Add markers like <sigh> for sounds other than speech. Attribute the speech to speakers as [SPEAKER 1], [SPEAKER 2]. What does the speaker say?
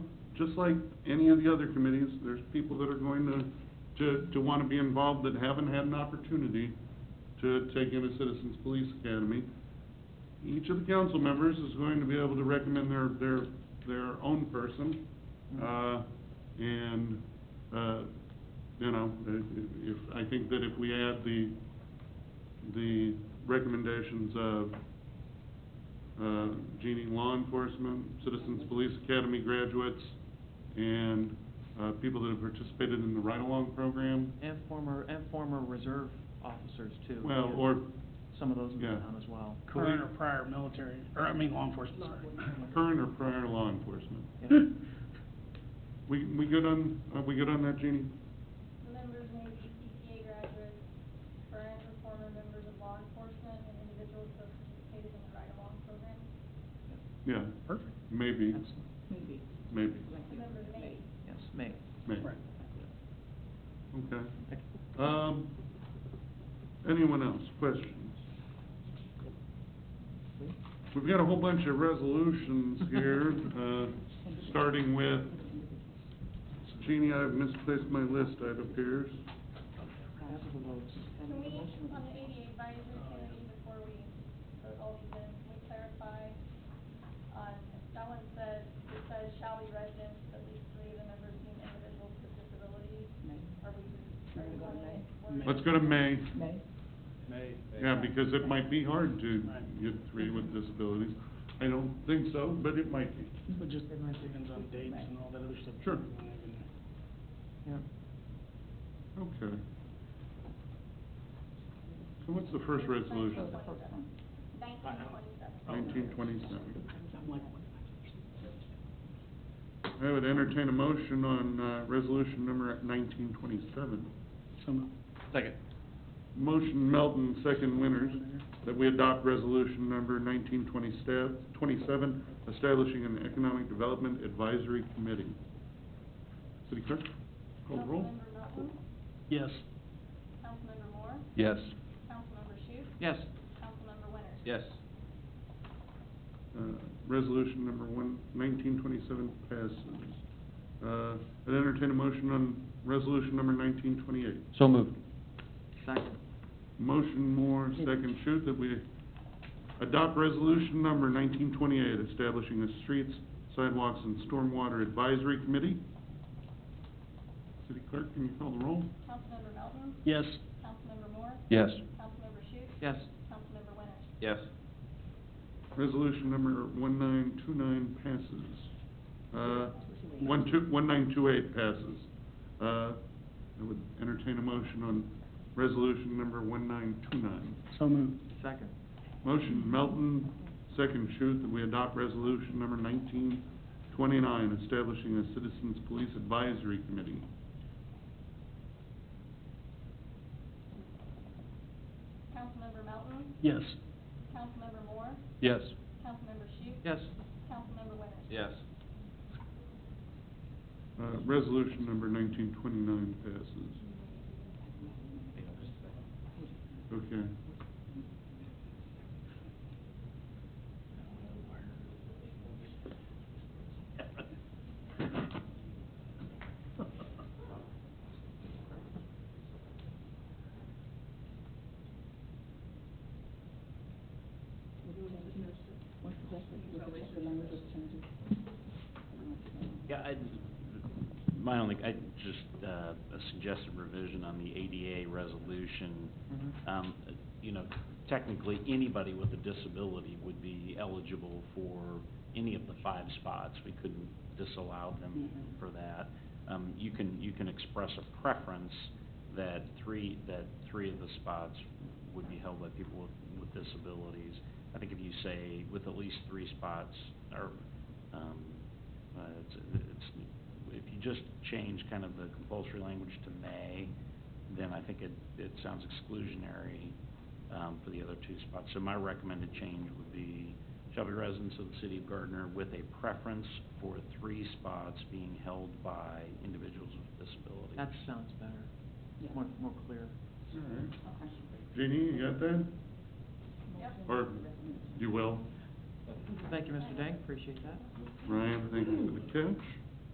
[SPEAKER 1] just like any of the other committees, there's people that are going to, to, to wanna be involved that haven't had an opportunity to take in a Citizens Police Academy. Each of the council members is going to be able to recommend their, their, their own person. Uh, and, uh, you know, i- i- if, I think that if we add the, the recommendations of, uh, Genie Law Enforcement, Citizens Police Academy graduates, and, uh, people that have participated in the ride-along program,
[SPEAKER 2] And former, and former reserve officers too.
[SPEAKER 1] well,
[SPEAKER 2] Yeah.
[SPEAKER 1] or
[SPEAKER 2] Some of those in
[SPEAKER 1] yeah.
[SPEAKER 2] town as well.
[SPEAKER 3] Current or prior military, or I mean, law enforcement, <laughs>
[SPEAKER 1] current or prior law enforcement.
[SPEAKER 2] Yeah.
[SPEAKER 3] sorry.
[SPEAKER 1] We, we good on, are we good on that, Jeannie?
[SPEAKER 4] Members may be CPA graduates, current or former members of law enforcement, and individuals who have participated in the ride-along program.
[SPEAKER 1] Yeah,
[SPEAKER 3] Perfect.
[SPEAKER 1] maybe,
[SPEAKER 2] Absolutely.
[SPEAKER 5] Maybe.
[SPEAKER 1] maybe,
[SPEAKER 4] The members may.
[SPEAKER 2] Yes, may.
[SPEAKER 1] maybe,
[SPEAKER 3] Right.
[SPEAKER 1] okay. Um, anyone else, questions? We've got a whole bunch of resolutions here, uh, starting with, Jeannie, I've misplaced my list, it appears.
[SPEAKER 4] Can we, on the ADA advisory committee, before we vote all these in, can we clarify? On, that one says, it says shall be residents, at least three of the members being individuals with disabilities. Are we, are we going to?
[SPEAKER 1] Let's go to May,
[SPEAKER 5] May?
[SPEAKER 3] May.
[SPEAKER 1] yeah, because it might be hard to get three with disabilities. I don't think so, but it might be.
[SPEAKER 3] But just depends on dates and all that other stuff.
[SPEAKER 1] Sure.
[SPEAKER 2] Yeah.
[SPEAKER 1] Okay. So what's the first resolution?
[SPEAKER 5] The first one.
[SPEAKER 1] Nineteen
[SPEAKER 4] Nineteen twenty-seven.
[SPEAKER 1] twenty-seven. I would entertain a motion on, uh, resolution number nineteen twenty-seven.
[SPEAKER 3] Some,
[SPEAKER 2] Second.
[SPEAKER 1] Motion Melton, second Winters, that we adopt resolution number nineteen twenty stab, twenty-seven, establishing an economic development advisory committee. City clerk, call the roll.
[SPEAKER 4] Councilmember Melton,
[SPEAKER 3] yes.
[SPEAKER 4] Councilmember Moore,
[SPEAKER 6] Yes.
[SPEAKER 4] Councilmember Shute,
[SPEAKER 2] Yes.
[SPEAKER 4] Councilmember Winters.
[SPEAKER 6] Yes.
[SPEAKER 1] Uh, Resolution number one, nineteen twenty-seven passes. Uh, I'd entertain a motion on resolution number nineteen twenty-eight.
[SPEAKER 6] So moved.
[SPEAKER 2] Second.
[SPEAKER 1] Motion Moore, second shoot that we adopt resolution number nineteen twenty-eight, establishing a streets, sidewalks, and stormwater advisory committee. City clerk, can you call the roll?
[SPEAKER 4] Councilmember Melton,
[SPEAKER 3] Yes.
[SPEAKER 4] Councilmember Moore,
[SPEAKER 6] Yes.
[SPEAKER 4] Councilmember Shute,
[SPEAKER 2] Yes.
[SPEAKER 4] Councilmember Winters.
[SPEAKER 6] Yes.
[SPEAKER 1] Resolution number one nine two nine passes. Uh, one two, one nine two eight passes. Uh, I would entertain a motion on resolution number one nine two nine.
[SPEAKER 3] So moved.
[SPEAKER 2] Second.
[SPEAKER 1] Motion Melton, second shoot that we adopt resolution number nineteen twenty-nine, establishing a Citizens Police Advisory Committee.
[SPEAKER 4] Councilmember Melton,
[SPEAKER 3] Yes.
[SPEAKER 4] Councilmember Moore,
[SPEAKER 6] Yes.
[SPEAKER 4] Councilmember Shute.
[SPEAKER 2] Yes.
[SPEAKER 4] Councilmember Winters.
[SPEAKER 6] Yes.
[SPEAKER 1] Uh, resolution number nineteen twenty-nine passes. Okay.
[SPEAKER 7] Yeah, I, my only, I just, uh, a suggested revision on the ADA resolution.
[SPEAKER 2] Mhm.
[SPEAKER 3] Mm-hmm.
[SPEAKER 7] Um, you know, technically, anybody with a disability would be eligible for any of the five spots. We couldn't disallow them
[SPEAKER 3] Mhm.
[SPEAKER 7] for that. Um, you can, you can express a preference that three, that three of the spots would be held by people with, with disabilities. I think if you say with at least three spots, or, um, uh, it's, it's, if you just change kind of the compulsory language to may, then I think it, it sounds exclusionary, um, for the other two spots. So my recommended change would be, shall be residents of the city of Gardner with a preference for three spots being held by individuals with disabilities.
[SPEAKER 2] That sounds better. More, more clear.
[SPEAKER 1] All right. Jeannie, you got that? Or you will?
[SPEAKER 2] Thank you, Mr. Dank, appreciate that.
[SPEAKER 1] Ryan, thank you for the catch.